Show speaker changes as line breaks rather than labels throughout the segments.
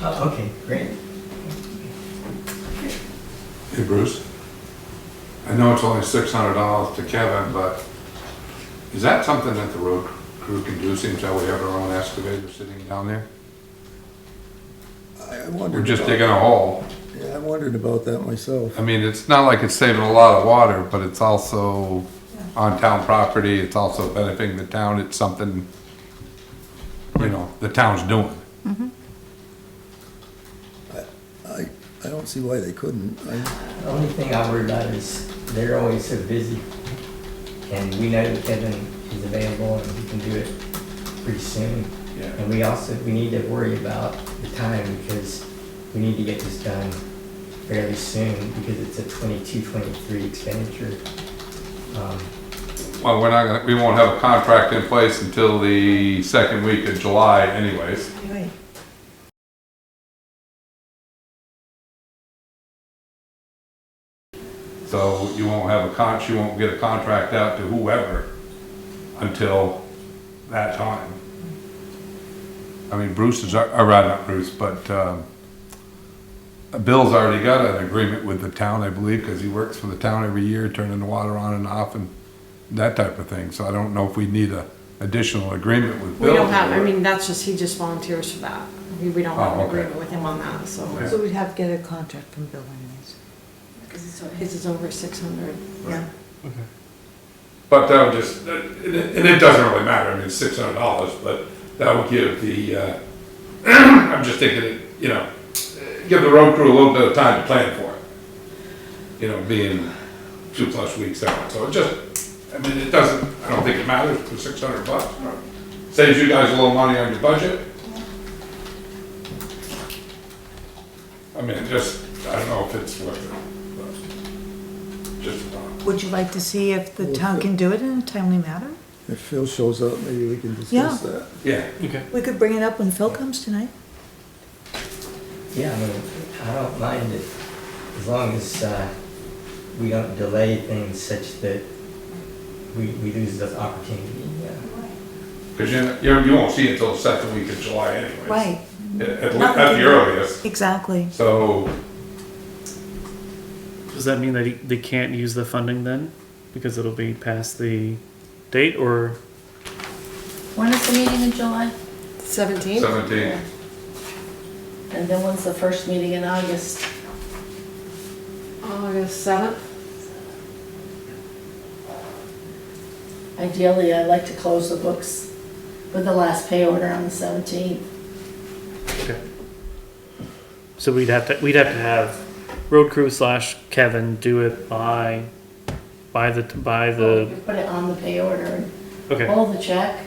Oh, Okay, great.
Hey Bruce, I know it's only six hundred dollars to Kevin, but is that something that the road crew can do, seems that we have our own excavator sitting down there?
I I
We're
wondered,
just
about-
digging a hole.
yeah, I wondered about that myself.
I mean, it's not like it's saving a lot of water, but it's also on town property, it's also benefiting the town, it's something, you know, the town's doing.
I, I don't see why they couldn't. I,
The only thing I worry about is they're always so busy. And we know that Kevin is available and he can do it pretty soon. And we also, we need to worry about the time because we need to get this done fairly soon because it's a twenty-two, twenty-three expenditure. Um,
Well, we're not gonna, we won't have a contract in place until the second week of July anyways.
Right.
So you won't have a con, you won't get a contract out to whoever until that time. I mean, Bruce is, al- or rather not Bruce, but, um, Bill's already got an agreement with the town, I believe, because he works for the town every year, turning the water on and off and that type of thing. So I don't know if we need a additional agreement with
We
Bill.
don't have,
for
I
it.
mean, that's just, he just volunteers for that. We, we don't have
Oh,
an
okay.
agreement with him on that, so.
Okay.
So we'd have to get a contract from Bill anyways.
His is over six hundred.
Yeah.
But that would just, and it and it doesn't really matter, I mean, six hundred dollars, but that would give the, uh, I'm just thinking, it, you know, give the road crew a little bit of time to plan for it. You know, being two plus weeks out, so it just, I mean, it doesn't, I don't think it matters for six hundred bucks. you know. Saves you guys a little money on your budget. I mean, it just, I don't know if it's worth it, but just, uh,
Would you like to see if the town can do it in a timely manner?
if Phil shows up, maybe we can discuss
Yeah.
that.
yeah.
We could bring it up when Phil comes tonight.
Yeah, I mean, I don't mind it, as long as, uh, we don't delay things such that we, we lose this opportunity, yeah.
Because you, you you won't see it till the second week of July anyways.
Right,
At, at le- at the earliest,
exactly.
so,
Does that mean that he- they can't use the funding then? Because it'll be past the date or?
When is the meeting in July?
Seventeen?
seventeen,
And then when's the first meeting in August?
August seventh?
Ideally, I'd like to close the books with the last pay order on the 17th.
Okay. So we'd have to, we'd have to have road crew slash Kevin do it by, by the, by the,
Put it on the pay order and
okay,
hold the check,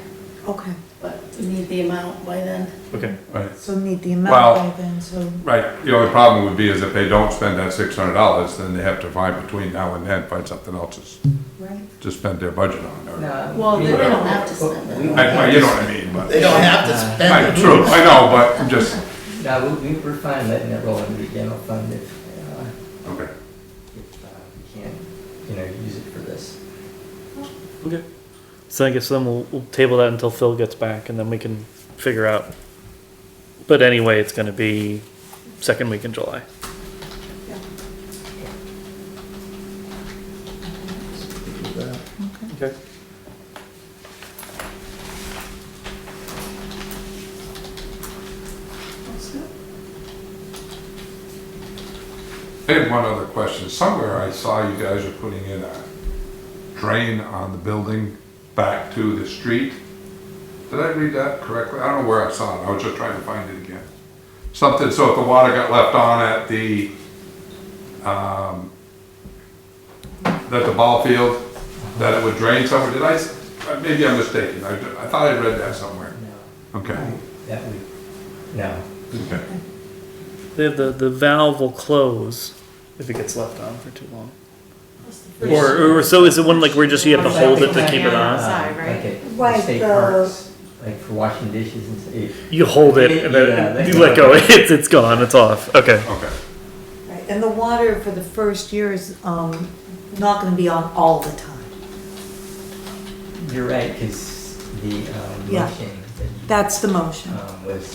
Okay,
but we need the amount by then.
okay.
right,
so need the amount
Well-
by then, so,
right. The only problem would be is if they don't spend that six hundred dollars, then they have to find between now and then, find something else to, s-
right?
to spend their budget on. or-
No,
Well,
we
the-
They
don't-
don't have to spend it.
I, I- you know what I mean, but,
They don't have
to
I, true, I know, but I'm just,
No, we, we- we're fine letting it roll into the general fund if, uh,
okay.
if uh, we can't, you know, use it for this.
Okay. So I guess then we'll, we'll table that until Phil gets back and then we can figure out. But anyway, it's gonna be second week in July.
Do that.
Okay.
I had one other question. Somewhere I saw you guys are putting in a drain on the building back to the street. Did I read that correctly? I don't know where I saw it. I was just trying to find it again. Something, so if the water got left on at the, um, at the ball field, that it would drain somewhere. Did I, s- uh, maybe I'm mistaken. I, I thought I read that somewhere.
No,
Okay.
that would, no.
Okay.
The, the, the valve will close if it gets left on for too long. Or, or so is it one like where just you have to hold it to keep it on?
Outside, right?
Like at
Right,
uh, the state
the-
parks, like for washing dishes and eh, stuff.
You hold it and
Yeah,
then you let go. It's, it's gone. It's off. Okay.
Okay.
Right, and the water for the first year is, um, not gonna be on all the time.
You're right, because the, um,
Yeah.
motion that you,
That's the motion.
um, was